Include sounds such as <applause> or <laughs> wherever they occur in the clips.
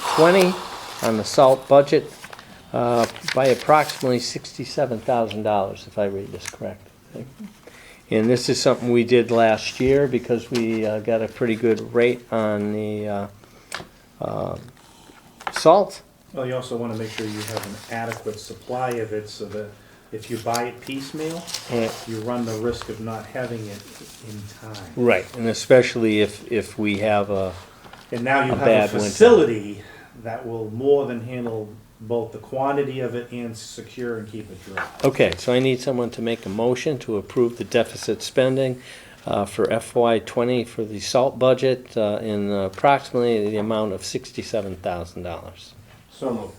20 on the salt budget uh, by approximately $67,000, if I read this correct. And this is something we did last year because we uh, got a pretty good rate on the uh, uh, salt. Well, you also want to make sure you have an adequate supply of it so that if you buy it piecemeal, And- you run the risk of not having it in time. Right, and especially if, if we have a, And now you A have bad a winter. facility that will more than handle both the quantity of it and secure and keep it dry. okay, so I need someone to make a motion to approve the deficit spending uh, for FY '20 for the salt budget uh, in approximately the amount of $67,000. So moved.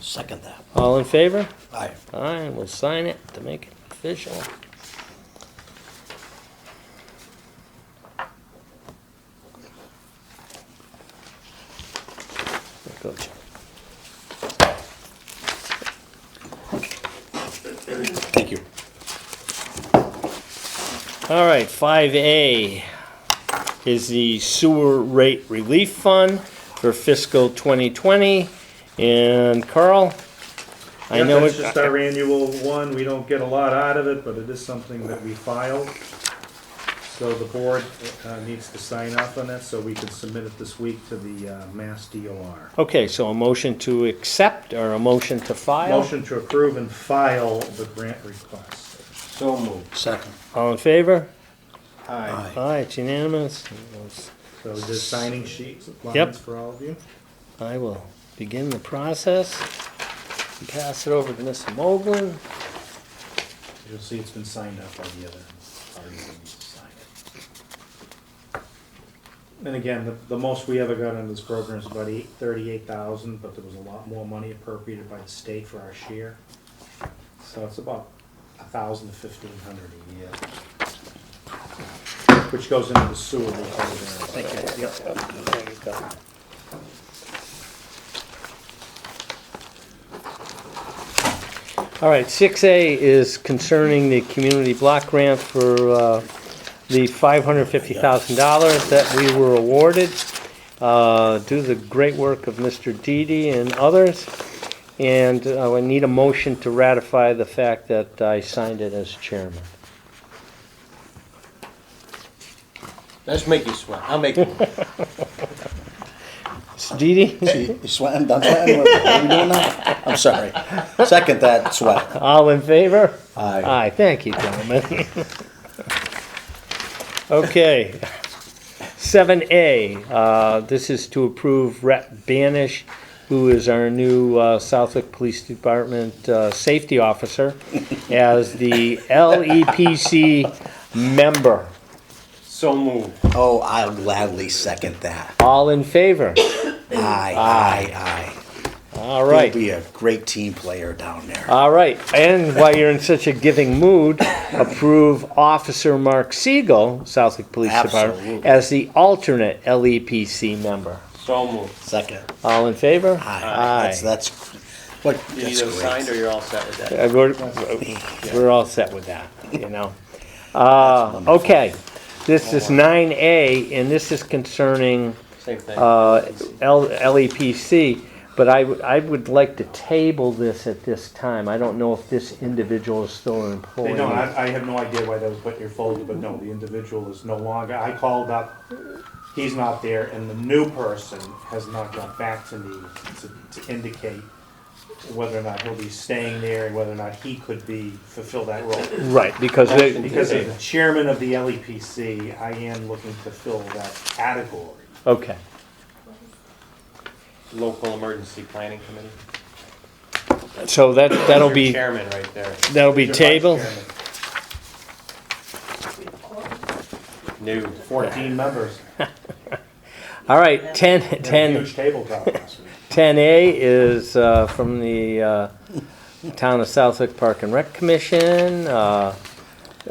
Second that. All in favor? Aye. Aye, we'll sign it to make it official. There goes. Thank you. All right, five A is the sewer rate relief fund for fiscal twenty twenty. And Carl, I Yeah, know That's just it, our annual one, we don't get a lot out of it, but it is something that we filed. So the board uh, needs to sign off on that, so we can submit it this week to the uh, Mass DOR. okay, so a motion to accept or a motion to file? Motion to approve and file the grant request. So moved. Second. All in favor? Aye. Aye. Aye, it's unanimous. So just signing sheets, Yep. lines for all of you. I will begin the process. Pass it over to Mr. Moglen. You'll see it's been signed up by the other parties that need to sign it. And again, the, the most we ever got under this program is about eight, thirty-eight thousand, but there was a lot more money appropriated by the state for our share. So it's about a thousand to fifteen hundred a year. Which goes into the sewer recovery. Thank you. There you go. All right, six A is concerning the community block grant for, uh, the five hundred fifty thousand dollars that we were awarded, uh, due to the great work of Mr. Didi and others. And uh, I need a motion to ratify the fact that I signed it as chairman. Let's make you sweat. I'll make you. Mr. Didi, <laughs> See, you sweating, done sweating, what are we doing now? I'm sorry. Second that, sweat. all in favor? Aye. Aye, thank you, gentlemen. Okay. Seven A, uh, this is to approve Rep Banish, who is our new, uh, Southwick Police Department, uh, safety officer, as the LEPC member. So moved. Oh, I'll gladly second that. All in favor? Aye, aye, aye. All You'll right. be a great team player down there. All right, and while you're in such a giving mood, approve Officer Mark Siegel, Southwick Police Department, Absolutely. as the alternate LEPC member. So moved. Second. All in favor? Aye. That's, that's, what, You that's either signed or great. you're all set with that. Uh, We're, we're all set with that, you know. Uh, okay, this is nine A, and this is concerning, Same thing. uh, L, LEPC, but I, would- I would like to table this at this time. I don't know if this individual is still an employee. They don't, I, I have no idea why that was put in your folder, but no, the individual is no longer, I called up, he's not there, and the new person has not got back to me to, to indicate whether or not he'll be staying there and whether or not he could be, fulfill that role. Right, because they. Because as the chairman of the LEPC, I am looking to fill that category. Okay. Local Emergency Planning Committee. So that, that'll Your be, Chairman right there. that'll be Your vice tabled? chairman, New. Fourteen members, All right, ten, and a ten, huge tabletop last week. ten A is, uh, from the, uh, Town of Southwick Park and Rec Commission, uh,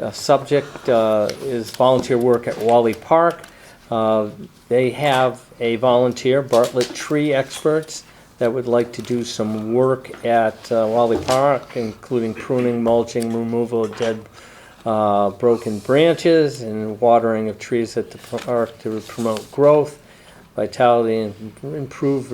uh, subject, uh, is volunteer work at Wally Park. Uh, they have a volunteer, Bartlett Tree Experts, that would like to do some work at, uh, Wally Park, including pruning, mulching, removal of dead uh, broken branches and watering of trees at the park to promote growth, vitality, and improve